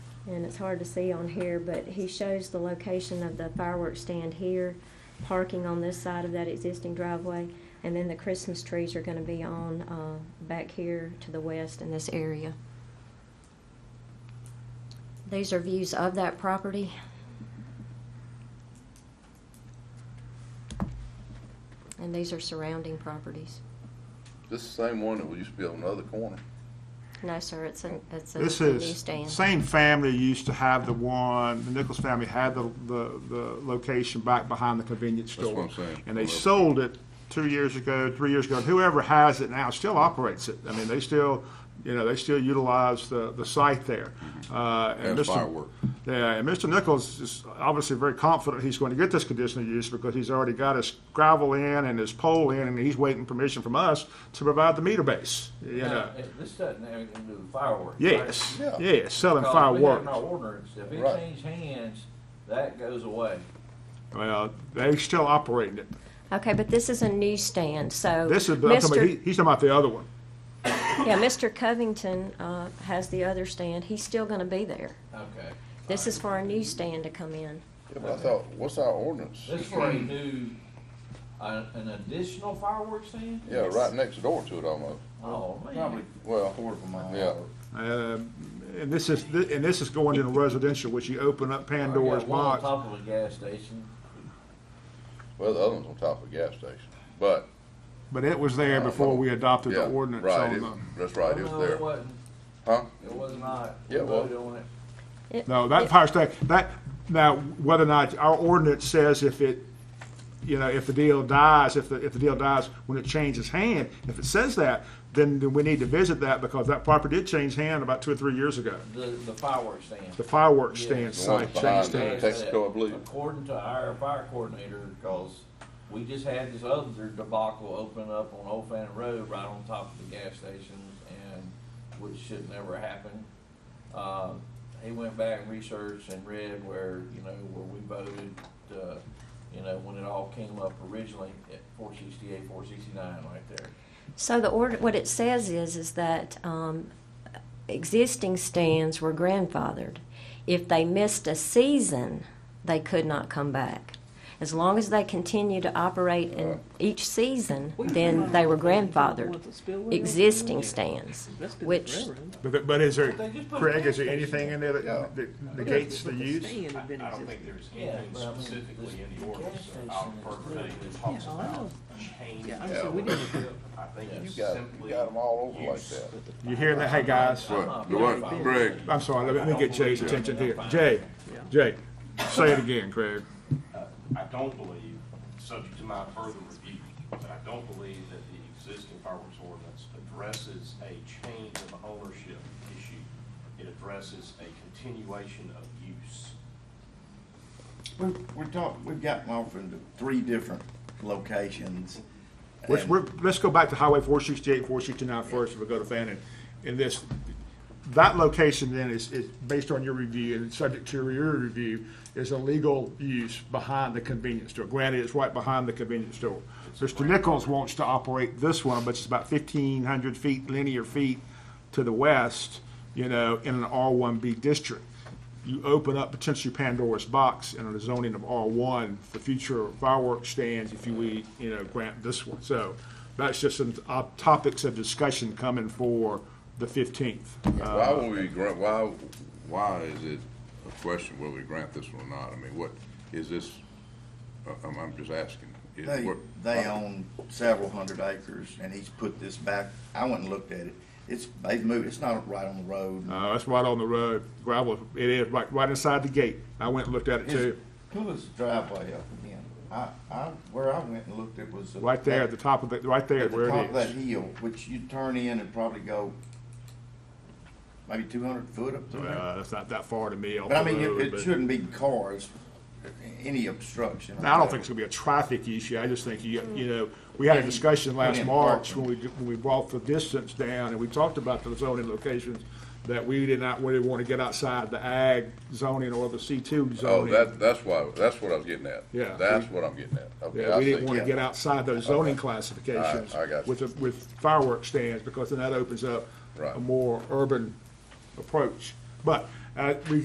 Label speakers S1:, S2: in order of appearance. S1: and it's hard to see on here, but he shows the location of the fireworks stand here, parking on this side of that existing driveway, and then the Christmas trees are gonna be on, uh, back here to the west in this area. These are views of that property. And these are surrounding properties.
S2: This is the same one that we used to be on the other corner.
S1: No, sir, it's a, it's a
S3: This
S1: new
S3: is,
S1: stand.
S3: same family used to have the one, the Nichols family had the, the, the location back behind the convenience
S2: That's what
S3: store.
S2: I'm saying.
S3: And they sold it two years ago, three years ago, and whoever has it now still operates it. I mean, they still, you know, they still utilize the, the site there. Uh,
S2: Mm-hmm. And
S3: Mr.
S2: firework.
S3: Yeah, and Mr. Nichols is obviously very confident he's going to get this conditional use because he's already got his gravel in and his pole in, and he's waiting permission from us to provide the meter base, you know.
S4: Now, it- This doesn't have anything to do with fireworks.
S3: Yes,
S2: Yeah.
S3: yes, selling
S4: Because we have in
S3: fireworks.
S4: our ordinance, if it
S2: Right.
S4: changes hands, that goes away.
S3: Well, they still operating it.
S1: Okay, but this is a new stand, so.
S3: This is, I'm talking about-
S1: Mr.
S3: he- he's talking about the other one.
S1: Yeah, Mr. Covington, uh, has the other stand. He's still gonna be there.
S4: Okay.
S1: This is for a new stand to come in.
S2: Yeah, but I thought, what's our ordinance?
S4: This for a new, uh, an additional fireworks stand?
S2: Yeah, right next door to it almost.
S4: Oh,
S5: Probably
S4: man.
S2: Well,
S5: quarter of a mile.
S2: yeah.
S3: Um, And this is, thi- and this is going into residential, which you open up Pandora's
S4: I got one on
S3: box.
S4: top of a gas station.
S2: Well, the other one's on top of a gas station, but.
S3: But it was there
S2: uh,
S3: before we adopted
S2: yeah,
S3: the ordinance
S2: right,
S3: on
S2: it-
S3: the,
S2: That's right, it
S4: No,
S2: was there.
S4: It wasn't,
S2: Huh?
S4: it was not. We
S2: Yeah, well-
S4: voted on it.
S3: no, that fire station, that, now, whether or not, our ordinance says if it, you know, if the deal dies, if the, if the deal dies when it changes hand, if it says that, then then we need to visit that because that property did change hand about two or three years ago.
S4: The, the fireworks stand.
S3: The fireworks
S4: Yeah.
S3: stand
S2: The one
S3: site
S2: behind
S3: changed
S2: the
S3: hands.
S2: Uh, Texaco, I believe.
S4: According to our fire coordinator, because we just had this other debacle open up on Old Fannin Road right on top of the gas stations and which should never happen. Uh, he went back and researched and read where, you know, where we voted, uh, you know, when it all came up originally at four sixty-eight, four sixty-nine right there.
S1: So the order, what it says is, is that, um, existing stands were grandfathered. If they missed a season, they could not come back. As long as they continue to operate in each season, then they were grandfathered. Existing stands, which
S3: But, but is there,
S4: They just put a
S3: Craig,
S4: gas
S3: is there anything in there that, that negates the use?
S6: I don't think there's anything
S4: but I mean, this-
S6: specifically in the ordinance
S4: gas
S6: about
S4: station is
S6: per se that
S4: really-
S6: talks
S7: Yeah, I
S6: about
S7: know.
S6: change.
S7: Yeah, I
S6: of
S7: know, we didn't-
S6: ownership. I think
S2: You
S6: it's
S2: got, you
S6: simply
S2: got them all over like
S6: use.
S2: that.
S3: You hearing that? Hey, guys,
S4: I'm not
S2: What?
S4: for
S2: What?
S4: fireworks.
S2: Greg?
S3: I'm sorry, let me- let me get Jay's attention here. Jay, Jay, say it again, Craig.
S6: I don't believe, subject to my further review, but I don't believe that the existing fireworks ordinance addresses a change of ownership issue. It addresses a continuation of use.
S5: We're, we're talking, we've gotten off into three different locations.
S3: Let's,
S5: and-
S3: we're, let's go back to Highway 468, 469 first, if we go to Fannin. And this, that location then is, is based on your review and subject to your review, is a legal use behind the convenience store. Granted, it's right behind the convenience store. Mr. Nichols wants to operate this one, but it's about 1,500 feet, linear feet to the west, you know, in an R1B district. You open up potentially Pandora's box in a zoning of R1 for future fireworks stands if you, we, you know, grant this one. So that's just some uh, topics of discussion coming for the 15th. Uh,
S2: Why would we grant, why, why is it a question whether we grant this one or not? I mean, what, is this, I- I'm, I'm just asking. Is-
S5: They,
S2: what-
S5: they own several hundred acres and he's put this back, I went and looked at it. It's, they've moved, it's not right on the road.
S3: Uh, that's right on the road, gravel, it is, right, right inside the gate. I went and looked at it
S5: His-
S3: too,
S5: Pull his driveway up again. I, I, where I went and looked, it was. a-
S3: right there at the top of the, right there
S5: At the
S3: where
S5: top of
S3: it
S5: that
S3: is.
S5: hill, which you turn in and probably go maybe two hundred foot up through there.
S3: Uh, that's not that far to me off
S5: But I
S3: the
S5: mean,
S3: road,
S5: it, it
S3: but-
S5: shouldn't be cars, any obstruction.
S3: Now, I don't think it's gonna be a traffic issue, I just think, you, you know, we had a discussion last
S5: Yeah.
S3: March when we, when we brought the distance down, and we talked about the zoning locations, that we did not really wanna get outside the ag zoning or the C two
S2: Oh,
S3: zoning.
S2: that, that's why, that's what I was getting at.
S3: Yeah.
S2: That's what I'm getting at. Okay,
S3: Yeah,
S2: I
S3: we
S2: see.
S3: didn't wanna
S5: yeah.
S3: get outside those zoning
S2: Alright,
S3: classifications
S2: I got you.
S3: with, the- with fireworks stands, because then that opens up a
S2: Right.
S3: more urban approach. But, uh, we